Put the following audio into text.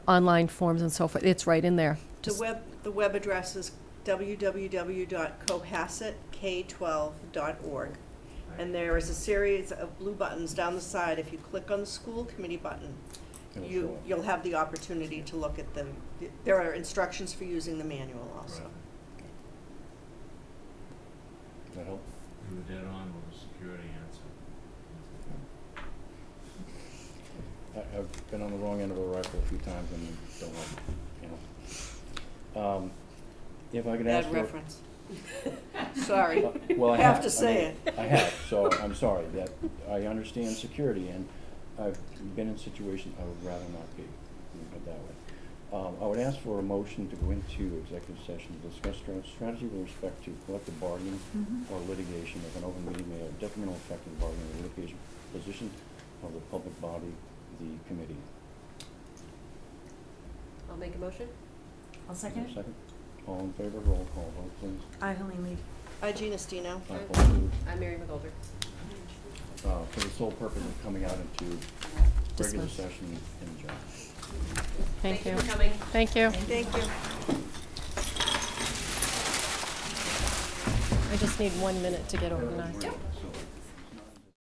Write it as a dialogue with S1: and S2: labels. S1: online forms and so forth. It's right in there.
S2: The web, the web address is www.cohassetk12.org. And there is a series of blue buttons down the side. If you click on the school committee button,
S3: It'll show
S2: you,
S3: up.
S2: you'll have the opportunity to look at them. There are instructions for using the manual also.
S3: That help?
S4: You were dead on with the security answer.
S3: I, I've been on the wrong end of a rifle a few times and don't like, it, you know. Um, if I could ask
S2: Bad
S3: for.
S2: reference. Sorry.
S3: Uh, Well, I
S2: Have
S3: have.
S2: to
S3: I
S2: say
S3: mean, I have, so I'm sorry that, I understand security and I've been in situations I would rather not be, let me put it that way. Um, I would ask for a motion to go into executive session to discuss stra- strategy with respect to collective bargaining
S2: Mm-hmm.
S3: or litigation if an open meeting may have detrimental effect on bargaining or litigation position of the public body, the committee.
S5: I'll make a motion.
S6: I'll
S3: Is there a
S6: second it.
S3: Second. All in favor, roll call vote please.
S6: I, Helene Lee.
S2: Hi, Gina Stino.
S3: Aye,
S5: Aye.
S3: Paul Booth.
S5: I'm Mary McGolder.
S3: uh, for the sole purpose of coming out into regular
S1: Dismiss.
S3: session in general.
S1: Thank you.
S5: for coming.
S1: Thank you.
S2: Thank you.
S1: I just need one minute to get organized.
S5: Yep.